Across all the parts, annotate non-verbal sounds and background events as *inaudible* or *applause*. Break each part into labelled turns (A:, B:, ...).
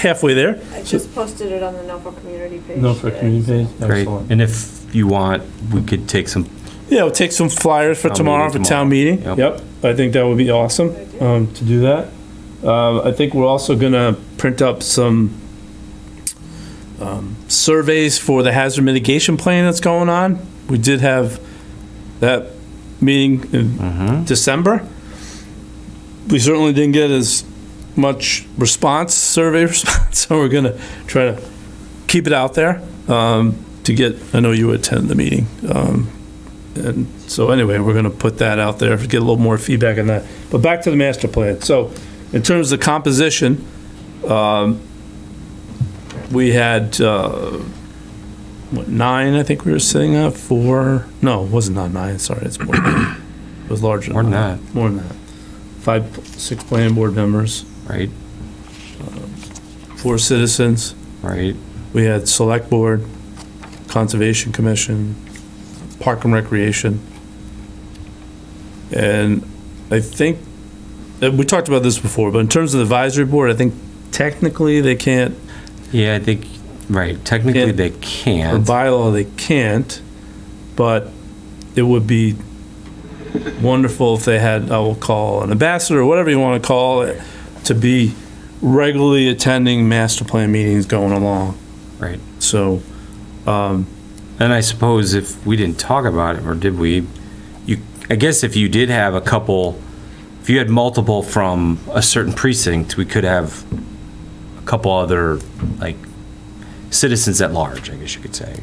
A: halfway there.
B: I just posted it on the Norfolk community page.
C: Norfolk Community Page,
D: Great.
C: excellent.
D: And if you want, we could take some,
A: Yeah, we'll take some flyers for
D: Town
A: tomorrow for
D: meeting
A: town meeting.
D: Yep.
A: Yep, I think that would be awesome um, to do that. Um, I think we're also gonna print up some um, surveys for the hazard mitigation plan that's going on. We did have that meeting
D: Mm-hmm.
A: in December. We certainly didn't get as much response, survey *laughs* response, so we're gonna try to keep it out there um, to get, I know you attend the meeting. um, And so anyway, we're going to put that out there, get a little more feedback on that. But back to the master plan. So in terms of composition, um, we had, uh, what, nine, I think we were sitting at, four, no, it wasn't not nine, sorry, it's more. than- It was larger
D: more
A: than
D: than
A: that.
D: that,
A: More than that. Five, six planning board members,
D: right?
A: four citizens.
D: Right?
A: We had Select Board, Conservation Commission, Park and Recreation. And I think, uh, we talked about this before, but in terms of the advisory board, I think technically they can't,
D: Yeah, I think, right, technically
A: Yeah.
D: they
A: or
D: can't.
A: by law they can't, but it would be wonderful if they had, I will call an ambassador, whatever you want to call it, to be regularly attending master plan meetings going along.
D: Right.
A: So, um,
D: And I suppose if we didn't talk about it, or did we, you, I guess if you did have a couple, if you had multiple from a certain precinct, we could have a couple other, like, citizens at large, I guess you could say.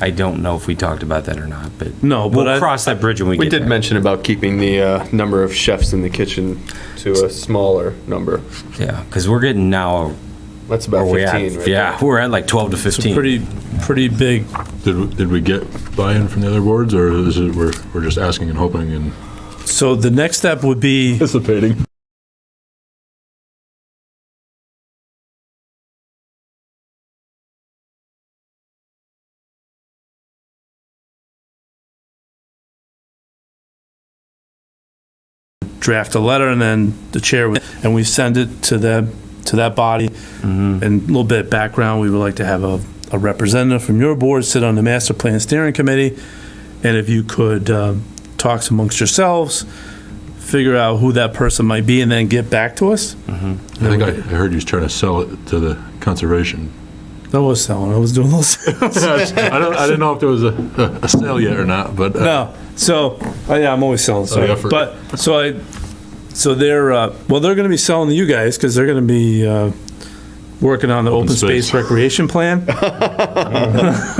D: I don't know if we talked about that or not, but
A: no, but I.
D: we'll cross that bridge when we
E: We
D: get there.
E: did mention about keeping the uh, number of chefs in the kitchen to a smaller number.
D: Yeah, because we're getting now,
E: That's
D: where
E: about
D: we
E: 15,
D: at?
E: right?
D: Oh, Yeah, we're at like 12 to
A: It's a
D: 15.
A: pretty, pretty big,
F: Did, did we get buy-in from the other boards, or is it, we're, we're just asking and hoping and?
A: so the next step would be,
F: Anticipating.
A: draft a letter and then the chair, would- and we send it to them, to that body. And a little bit of background, we would like to have a, a representative from your board sit on the master plan steering committee. And if you could, um, talk amongst yourselves, figure out who that person might be and then get back to us.
F: I think I, I heard you was trying to sell it to the conservation. *laughs*
A: That was selling, I was doing a little sales.
F: I don't, I didn't know if there was a, a sale yet or not, but. uh,
A: No, so, oh yeah, I'm always selling, sorry.
F: yeah, for-
A: But, so I, so they're, uh, well, they're gonna be selling to you guys, because they're gonna be, uh, working on the
F: Open
A: open space
F: space.
A: recreation
F: *laughs*
A: plan.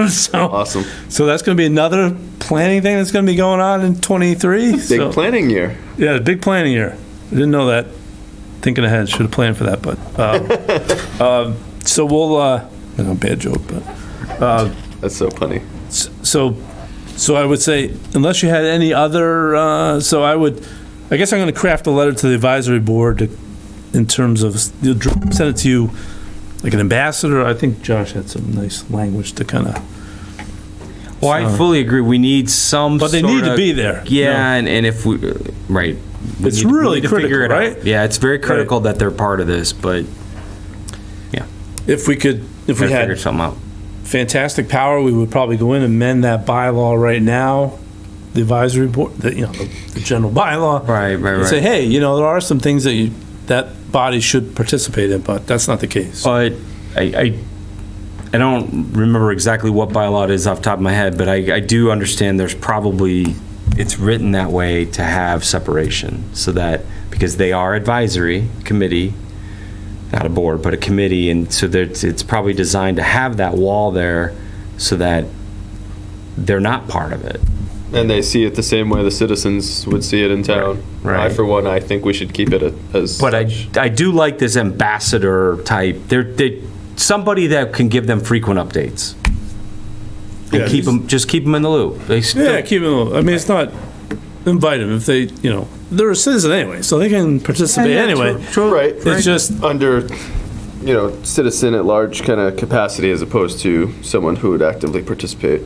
A: *laughs* So,
E: Awesome.
A: so that's gonna be another planning thing that's gonna be going on in twenty-three,
E: Big
A: so,
E: planning year.
A: yeah, big planning year. I Didn't know that, thinking ahead, should've planned for that, but, um, um, *laughs* so we'll, uh, you know, bad joke, but.
E: That's so funny.
A: So, so I would say, unless you had any other, uh, so I would, I guess I'm going to craft a letter to the advisory board to- in terms of, you'll dr- send it to you like an ambassador. I think Josh had some nice language to kind of,
D: Well, I fully agree. We need some.
A: but they need to
D: sorta-
A: be there. you
D: Yeah,
A: know?
D: and, and if we, uh, right. We
A: It's
D: need- we
A: really
D: need to figure
A: critical,
D: it out.
A: right?
D: Yeah, it's very critical that they're part of this, but
A: If we could, if
D: we
A: we
D: figure
A: had
D: something out.
A: fantastic power, we would probably go in and amend that bylaw right now, the advisory board, the, you know, the the general bylaw.
D: Right, right,
A: And
D: right.
A: say, hey, you know, there are some things that you, that body should participate in, but that's not the case.
D: But I, I, I don't remember exactly what bylaw it is off the top of my head, but I, I do understand there's probably, it's written that way to have separation, so that, because they are advisory committee, not a board, but a committee, and so that it's probably designed to have that wall there so that they're not part of it.
E: And they see it the same way the citizens would see it in town.
D: Right, right.
E: I, for one, I think we should keep it a- as.
D: But I,
E: such.
D: I do like this ambassador type. They're, they, somebody that can give them frequent updates.
A: Yeah,
D: And keep them, just keep them in the loop. They
A: Yeah,
D: still,
A: keep them. I mean, it's not invite them if they, you know, they're a citizen anyway, so they can participate anyway.
E: Right.
A: It's just
E: Under, you know, citizen at large kind of capacity as opposed to someone who would actively participate.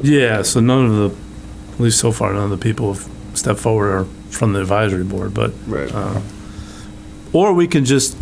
A: yeah. So none of the, at least so far, none of the people have stepped forward or from the advisory board, but
E: Right.
A: or we can just